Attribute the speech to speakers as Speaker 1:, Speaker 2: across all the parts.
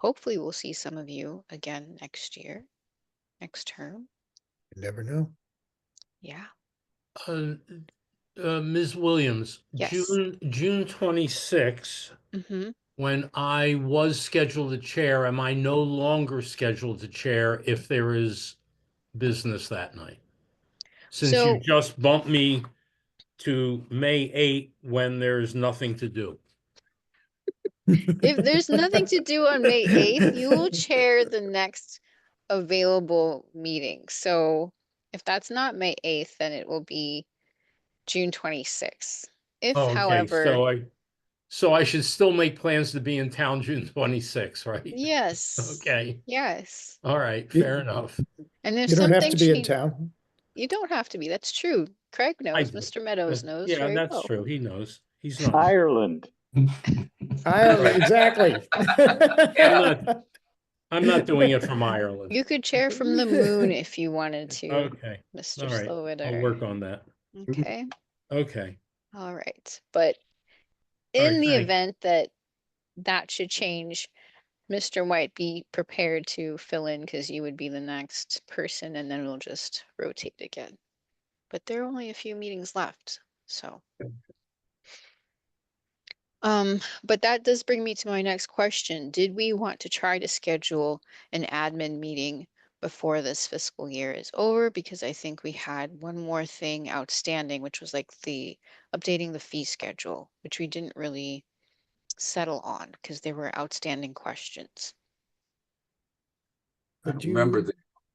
Speaker 1: Hopefully, we'll see some of you again next year, next term.
Speaker 2: You never know.
Speaker 1: Yeah.
Speaker 3: Uh, uh, Ms. Williams,
Speaker 1: Yes.
Speaker 3: June, June 26,
Speaker 1: hmm
Speaker 3: when I was scheduled to chair, am I no longer scheduled to chair if there is business that night? Since
Speaker 1: So-
Speaker 3: you just bumped me to May 8 when there's nothing to do.
Speaker 1: If there's nothing to do on May 8th, you will chair the next available meeting. So if that's not May 8th, then it will be June 26th. If,
Speaker 3: Oh, okay,
Speaker 1: however,
Speaker 3: So I, so I should still make plans to be in town June 26, right?
Speaker 1: yes,
Speaker 3: Okay,
Speaker 1: yes.
Speaker 3: all right,
Speaker 2: You-
Speaker 3: fair enough.
Speaker 1: And if
Speaker 2: You don't have
Speaker 1: something
Speaker 2: to be in
Speaker 1: changes,
Speaker 2: town.
Speaker 1: you don't have to be. That's true. Craig knows,
Speaker 3: do.
Speaker 1: Mr. Meadows knows
Speaker 3: Yeah,
Speaker 1: very
Speaker 3: that's
Speaker 1: well.
Speaker 3: true. He knows. He's not.
Speaker 4: Ireland.
Speaker 2: Ireland, exactly.
Speaker 3: I'm not doing it from Ireland.
Speaker 1: You could chair from the moon if you wanted to,
Speaker 3: Okay,
Speaker 1: Mr.
Speaker 3: all right. I'll work
Speaker 1: Slowiter.
Speaker 3: on that.
Speaker 1: Okay.
Speaker 3: Okay,
Speaker 1: All right, but
Speaker 3: All right,
Speaker 1: in the
Speaker 3: thank-
Speaker 1: event that that should change, Mr. White, be prepared to fill in because you would be the next person and then we'll just rotate again. But there are only a few meetings left, so. Um, but that does bring me to my next question. Did we want to try to schedule an admin meeting before this fiscal year is over? Because I think we had one more thing outstanding, which was like the updating the fee schedule, which we didn't really settle on because there were outstanding questions.
Speaker 2: But
Speaker 5: I don't
Speaker 2: you-
Speaker 5: remember the,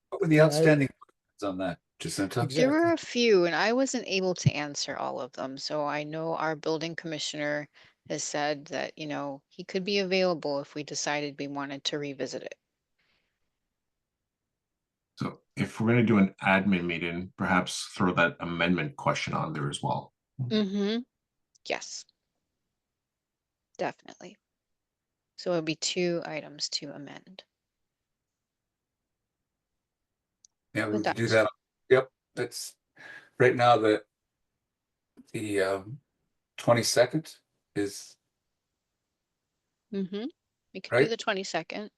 Speaker 5: what were the
Speaker 2: I-
Speaker 5: outstanding questions on that, Jacinta?
Speaker 2: Exact-
Speaker 1: There were
Speaker 2: Exactly.
Speaker 1: a few and I wasn't able to answer all of them. So I know our building commissioner has said that, you know, he could be available if we decided we wanted to revisit it.
Speaker 6: So if we're gonna do an admin meeting, perhaps throw that amendment question on there as well.
Speaker 1: Mm-hmm. Yes. Definitely. So it'll be two items to amend.
Speaker 5: Yeah, we
Speaker 1: With
Speaker 5: could do
Speaker 1: that.
Speaker 5: that. Yep, that's, right now, the, the, um, twenty-second is,
Speaker 1: Mm-hmm. We could do
Speaker 5: Right.
Speaker 1: the twenty-second.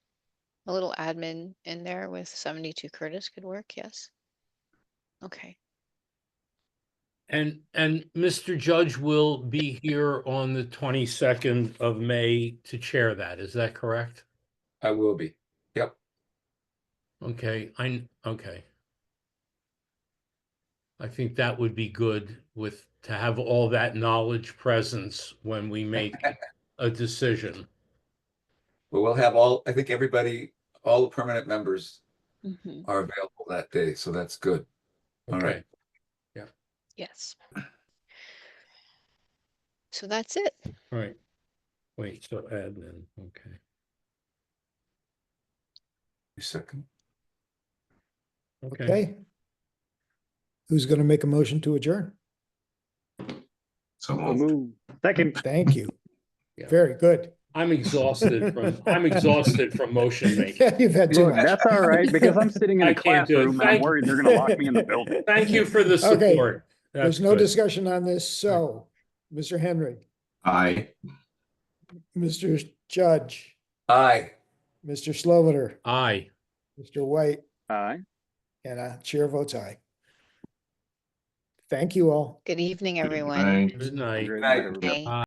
Speaker 1: A little admin in there with seventy-two Curtis could work, yes. Okay,
Speaker 3: and, and Mr. Judge will be here on the twenty-second of May to chair that, is that correct?
Speaker 5: I will be. Yep,
Speaker 3: Okay, I, kn- okay. I think that would be good with, to have all that knowledge presence when we make a decision.
Speaker 5: but we'll have all, I think everybody, all the permanent members
Speaker 1: Mhm.
Speaker 5: are available that day, so that's good. All
Speaker 3: Okay.
Speaker 5: right.
Speaker 1: yes. So that's it.
Speaker 3: All right. Wait, so admin, okay.
Speaker 5: You second.
Speaker 3: Okay,
Speaker 2: Okay. Who's going to make a motion to adjourn?
Speaker 6: So
Speaker 4: So
Speaker 6: moved.
Speaker 4: moved. Second.
Speaker 2: Thank you.
Speaker 3: Yeah.
Speaker 2: Very good.
Speaker 3: I'm exhausted from, I'm exhausted from motion making.
Speaker 2: Yeah, You've had too
Speaker 4: Look,
Speaker 2: much.
Speaker 4: that's all right, because I'm sitting in
Speaker 3: I
Speaker 4: a
Speaker 3: can't do it.
Speaker 4: classroom and I'm
Speaker 3: Thank-
Speaker 4: worried they're gonna lock me in the building.
Speaker 3: Thank you for the
Speaker 2: Okay.
Speaker 3: support.
Speaker 2: There's
Speaker 3: That's
Speaker 2: no
Speaker 3: good.
Speaker 2: discussion on this, so Mr. Henry,
Speaker 6: Aye.
Speaker 2: Mr. Judge,
Speaker 5: Aye,
Speaker 2: Mr. Sloviter,
Speaker 3: Aye.
Speaker 2: Mr. White,
Speaker 4: Aye.
Speaker 2: and uh chair votes aye. Thank you all.
Speaker 1: Good evening, everyone.
Speaker 6: Aye.
Speaker 3: Good night.
Speaker 5: night.
Speaker 1: Okay.